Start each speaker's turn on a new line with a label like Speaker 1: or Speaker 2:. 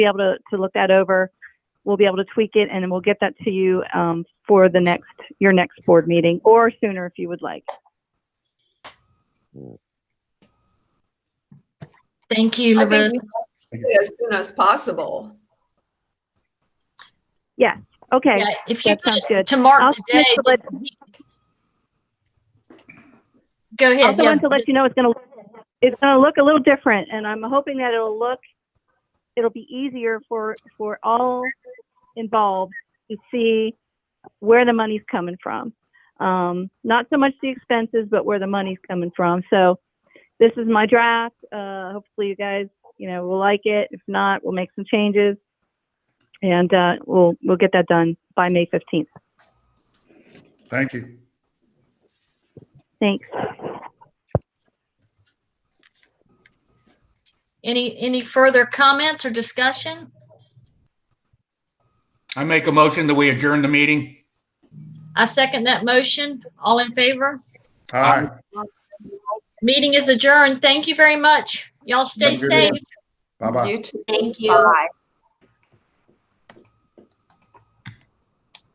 Speaker 1: be able to, to look that over. We'll be able to tweak it and then we'll get that to you um, for the next, your next board meeting or sooner if you would like.
Speaker 2: Thank you,
Speaker 3: I
Speaker 2: LaRose.
Speaker 3: think we have to do it as soon as possible.
Speaker 1: Okay.
Speaker 2: Yeah, If you
Speaker 1: that sounds
Speaker 2: could,
Speaker 1: good.
Speaker 2: to Mark
Speaker 1: I'll
Speaker 2: today.
Speaker 1: just let-
Speaker 2: that he- Go ahead.
Speaker 1: also
Speaker 2: yeah.
Speaker 1: want to let you know it's going to it's going to look a little different, and I'm hoping that it'll look it'll be easier for for all involved to see where the money's coming from. Um, not so much the expenses, but where the money's coming from. So this is my draft. Uh, hopefully, you guys you know will like it. If not, we'll make some changes, and uh, we'll we'll get that done by May 15th.
Speaker 4: Thank you.
Speaker 1: Thanks.
Speaker 2: Any, any further comments or discussion?
Speaker 4: I make a motion that we adjourn the meeting.
Speaker 2: I second that motion. All in favor?
Speaker 4: Aye.
Speaker 2: Meeting is adjourned. Thank you very much. Y'all stay
Speaker 4: Thank you.
Speaker 2: safe.
Speaker 4: Bye-bye.
Speaker 3: You too.
Speaker 5: Thank you.
Speaker 3: Bye.